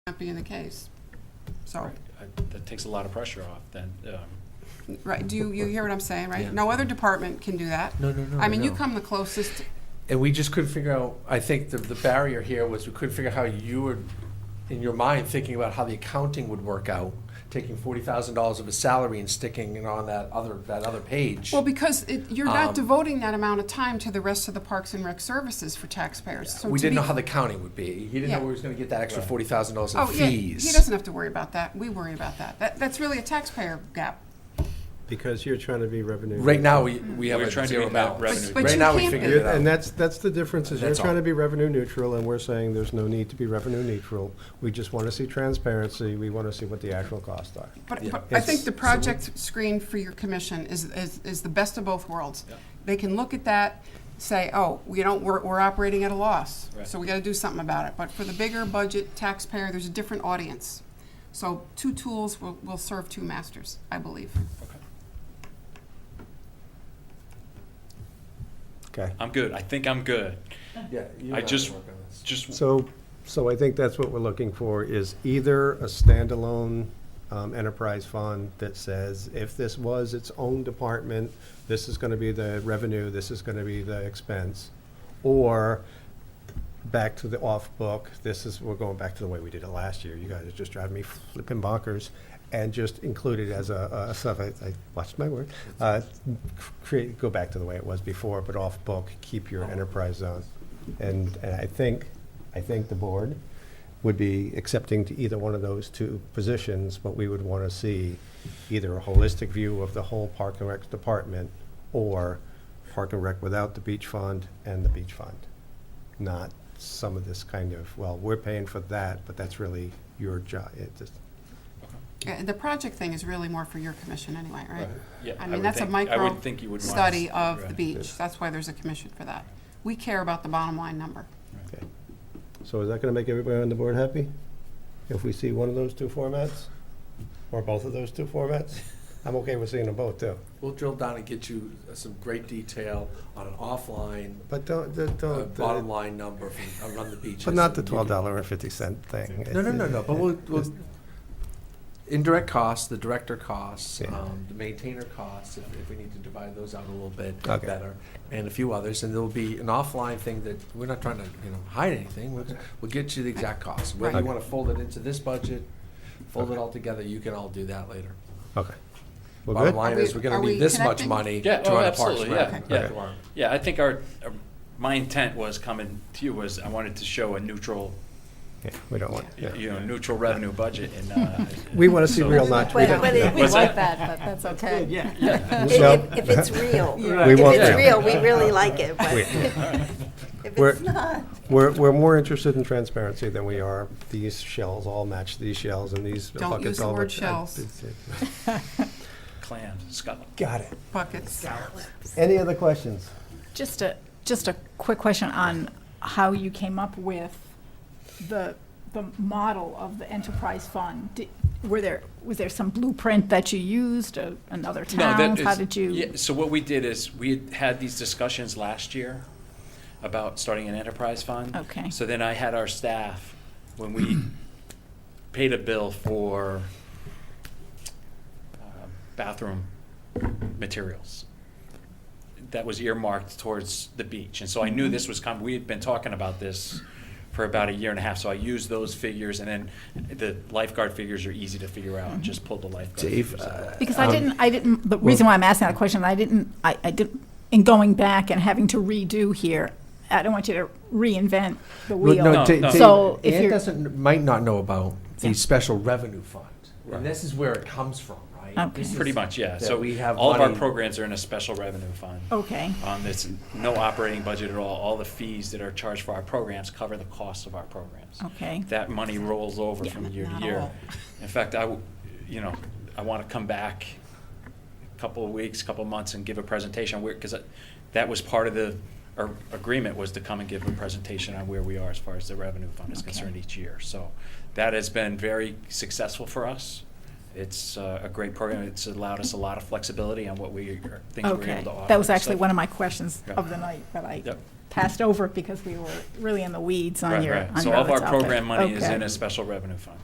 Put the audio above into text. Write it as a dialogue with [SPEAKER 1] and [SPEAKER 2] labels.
[SPEAKER 1] not being the case. So,
[SPEAKER 2] Right. I- That takes a lot of pressure off then. um,
[SPEAKER 1] right, do you, you hear what I'm saying,
[SPEAKER 3] Yeah.
[SPEAKER 1] right? No other department can do that.
[SPEAKER 3] No, no, no,
[SPEAKER 1] I mean, you
[SPEAKER 3] no.
[SPEAKER 1] come the closest,
[SPEAKER 3] And we just couldn't figure out, I think the, the barrier here was we couldn't figure out how you were, in your mind, thinking about how the accounting would work out, taking forty thousand dollars of a salary and sticking it on that other, that other page.
[SPEAKER 1] well, because it, you're not
[SPEAKER 3] Um,
[SPEAKER 1] devoting that amount of time to the rest of the Parks and Rec services for taxpayers. So
[SPEAKER 3] We
[SPEAKER 1] to
[SPEAKER 3] didn't know
[SPEAKER 1] be-
[SPEAKER 3] how the counting would be. He didn't
[SPEAKER 1] Yeah.
[SPEAKER 3] know where he was gonna get that extra
[SPEAKER 2] Right.
[SPEAKER 3] forty thousand dollars in
[SPEAKER 1] Oh, yeah, he
[SPEAKER 3] fees.
[SPEAKER 1] doesn't have to worry about that. We worry about that. That, that's really a taxpayer gap.
[SPEAKER 4] Because you're trying to be revenue.
[SPEAKER 3] Right now, we, we have
[SPEAKER 2] We're
[SPEAKER 3] a
[SPEAKER 2] trying to
[SPEAKER 3] zero
[SPEAKER 2] be net
[SPEAKER 3] balance.
[SPEAKER 2] revenue
[SPEAKER 1] But- but
[SPEAKER 3] Right
[SPEAKER 1] you
[SPEAKER 3] now, we
[SPEAKER 1] can't
[SPEAKER 3] figured
[SPEAKER 1] be.
[SPEAKER 3] it
[SPEAKER 4] And
[SPEAKER 3] out.
[SPEAKER 4] that's, that's the difference, is you're
[SPEAKER 3] That's all.
[SPEAKER 4] trying to be revenue neutral, and we're saying there's no need to be revenue neutral. We just want to see transparency, we want to see what the actual costs are.
[SPEAKER 1] But,
[SPEAKER 3] Yeah.
[SPEAKER 1] but I think
[SPEAKER 4] Yes.
[SPEAKER 1] the project screen for your commission is, is, is the best of both worlds.
[SPEAKER 2] Yeah.
[SPEAKER 1] They can look at that, say, oh, we don't, we're, we're operating at a loss,
[SPEAKER 2] Right.
[SPEAKER 1] so we gotta do something about it. But for the bigger budget taxpayer, there's a different audience. So two tools will, will serve two masters, I believe.
[SPEAKER 4] Okay.
[SPEAKER 2] I'm good. I think I'm good.
[SPEAKER 3] Yeah, you and
[SPEAKER 2] I
[SPEAKER 3] will
[SPEAKER 2] just-
[SPEAKER 3] work on this.
[SPEAKER 2] Just,
[SPEAKER 4] So, so I think that's what we're looking for, is either a standalone um, enterprise fund that says, if this was its own department, this is going to be the revenue, this is going to be the expense, or back to the off-book, this is, we're going back to the way we did it last year. You guys are just driving me flipping bonkers, and just include it as a, a sub, I, I watched my word, uh, create, go back to the way it was before, but off-book, keep your enterprise zone. And, and I think, I think the board would be accepting to either one of those two positions, but we would want to see either a holistic view of the whole Park and Rec department or Park and Rec without the beach fund and the beach fund. Not some of this kind of, well, we're paying for that, but that's really your job. It just,
[SPEAKER 1] Uh, The project thing is really more for your commission anyway, right?
[SPEAKER 2] yeah.
[SPEAKER 1] I
[SPEAKER 2] would
[SPEAKER 1] mean, that's a
[SPEAKER 2] think- I would
[SPEAKER 1] micro
[SPEAKER 2] think you would want us-
[SPEAKER 1] study of the
[SPEAKER 2] right.
[SPEAKER 1] beach. That's why there's a commission for that. We care about the bottom line number.
[SPEAKER 4] okay. So is that going to make everybody on the board happy? If we see one of those two formats? Or both of those two formats? I'm okay with seeing them both, too.
[SPEAKER 3] We'll drill down and get you uh, some great detail on an offline,
[SPEAKER 4] But don't, don't-
[SPEAKER 3] uh,
[SPEAKER 4] don't.
[SPEAKER 3] bottom line number from around the beaches.
[SPEAKER 4] But not the
[SPEAKER 3] and you can-
[SPEAKER 4] twelve dollar and fifty cent thing.
[SPEAKER 3] No, no, no, no, but we'll,
[SPEAKER 4] Just-
[SPEAKER 3] we'll, indirect costs, the director costs,
[SPEAKER 4] Yeah.
[SPEAKER 3] um, the maintainer costs, if, if we need to divide those out a little bit
[SPEAKER 4] Okay.
[SPEAKER 3] better, and a few others, and there'll be an offline thing that, we're not trying to, you know, hide anything, we'll, we'll get you the exact costs. Whether you
[SPEAKER 4] Okay.
[SPEAKER 3] wanna fold it into this budget, fold it
[SPEAKER 4] Okay.
[SPEAKER 3] all together, you can all do that later.
[SPEAKER 4] Okay. We're
[SPEAKER 3] Bottom
[SPEAKER 4] good?
[SPEAKER 3] line is, we're gonna
[SPEAKER 1] Are we-
[SPEAKER 3] need this
[SPEAKER 1] are we
[SPEAKER 3] much
[SPEAKER 1] connecting?
[SPEAKER 3] money
[SPEAKER 2] Yeah,
[SPEAKER 3] to
[SPEAKER 2] oh,
[SPEAKER 3] run a Parks
[SPEAKER 2] absolutely, yeah,
[SPEAKER 3] Rec.
[SPEAKER 2] yeah.
[SPEAKER 3] program.
[SPEAKER 2] Yeah, I think our, our- my intent was coming to you was I wanted to show a neutral,
[SPEAKER 4] Yeah, we don't want,
[SPEAKER 2] you
[SPEAKER 4] yeah.
[SPEAKER 2] know, neutral revenue budget and. uh,
[SPEAKER 4] We want to see
[SPEAKER 2] so-
[SPEAKER 4] real, not. we
[SPEAKER 5] Well,
[SPEAKER 4] don't-
[SPEAKER 5] but it- We
[SPEAKER 2] What's
[SPEAKER 5] like
[SPEAKER 2] that?
[SPEAKER 5] that, but that's okay.
[SPEAKER 4] Yeah.
[SPEAKER 5] If-
[SPEAKER 4] So-
[SPEAKER 5] If if it's real.
[SPEAKER 4] We
[SPEAKER 5] If
[SPEAKER 4] want
[SPEAKER 5] it's
[SPEAKER 4] real.
[SPEAKER 5] real, we really like it, but
[SPEAKER 4] We-
[SPEAKER 5] if
[SPEAKER 4] We're-
[SPEAKER 5] it's not.
[SPEAKER 4] We're, we're more interested in transparency than we are, these shells all match these shells and these
[SPEAKER 1] Don't use
[SPEAKER 4] buckets
[SPEAKER 1] the
[SPEAKER 4] all.
[SPEAKER 1] word
[SPEAKER 4] match.
[SPEAKER 1] shells.
[SPEAKER 2] Clan, Scotland.
[SPEAKER 4] Got it.
[SPEAKER 1] Buckets.
[SPEAKER 4] Any other questions?
[SPEAKER 6] Just a, just a quick question on how you came up with the, the model of the enterprise fund. Di- Were there, was there some blueprint that you used, uh, another
[SPEAKER 2] No, that
[SPEAKER 6] town? How
[SPEAKER 2] is-
[SPEAKER 6] did
[SPEAKER 2] yeah,
[SPEAKER 6] you?
[SPEAKER 2] So what we did is, we had had these discussions last year about starting an enterprise fund.
[SPEAKER 6] Okay.
[SPEAKER 2] So then I had our staff, when we paid a bill for uh, bathroom materials, that was earmarked towards the beach. And so I knew
[SPEAKER 6] Mm-hmm.
[SPEAKER 2] this was coming, we had been talking about this for about a year and a half, so I used those figures, and then the lifeguard figures are easy to figure
[SPEAKER 6] Mm-hmm.
[SPEAKER 2] out, just pull the lifeguard
[SPEAKER 3] Dave,
[SPEAKER 2] figures out.
[SPEAKER 4] uh,
[SPEAKER 6] Because
[SPEAKER 3] Um,
[SPEAKER 6] I didn't, I didn't, the reason why I'm asking that question, I didn't, I, I didn't, in going back and having to redo here, I don't want you to reinvent the
[SPEAKER 3] Well,
[SPEAKER 6] wheel.
[SPEAKER 3] No,
[SPEAKER 2] No,
[SPEAKER 3] Da-
[SPEAKER 2] no.
[SPEAKER 3] Dave,
[SPEAKER 6] So if
[SPEAKER 3] Ann
[SPEAKER 6] you're-
[SPEAKER 3] doesn't, might not know about the
[SPEAKER 6] Yeah.
[SPEAKER 3] special revenue fund.
[SPEAKER 2] Right.
[SPEAKER 3] And this is where it comes from, right?
[SPEAKER 6] Okay.
[SPEAKER 3] This is
[SPEAKER 2] Pretty much, yeah.
[SPEAKER 3] that
[SPEAKER 2] So
[SPEAKER 3] we have
[SPEAKER 2] all of our
[SPEAKER 3] money-
[SPEAKER 2] programs are in a special revenue fund.
[SPEAKER 6] Okay,
[SPEAKER 2] On this, no operating budget at all. All the fees that are charged for our programs cover the costs of our programs.
[SPEAKER 6] okay.
[SPEAKER 2] That money rolls over
[SPEAKER 6] Yeah,
[SPEAKER 2] from
[SPEAKER 6] but
[SPEAKER 2] year to
[SPEAKER 6] not
[SPEAKER 2] year.
[SPEAKER 6] all.
[SPEAKER 2] In fact, I, w- you know, I want to come back a couple of weeks, couple of months and give a presentation where, because that was part of the, our agreement was to come and give a presentation on where we are as far as the revenue fund is
[SPEAKER 6] Okay.
[SPEAKER 2] concerned each year. So that has been very successful for us. It's uh, a great program. It's allowed us a lot of flexibility on what we, are- things we're
[SPEAKER 6] Okay,
[SPEAKER 2] able to offer.
[SPEAKER 6] that was
[SPEAKER 2] So-
[SPEAKER 6] actually one of my questions
[SPEAKER 2] Yeah.
[SPEAKER 6] of the night, but I
[SPEAKER 2] Yep.
[SPEAKER 6] passed over because we were really in the weeds on
[SPEAKER 2] Right,
[SPEAKER 6] your,
[SPEAKER 2] right.
[SPEAKER 6] on
[SPEAKER 2] So
[SPEAKER 6] your
[SPEAKER 2] all of
[SPEAKER 6] other
[SPEAKER 2] our
[SPEAKER 6] topic.
[SPEAKER 2] program money is
[SPEAKER 6] Okay.
[SPEAKER 2] in a special revenue fund.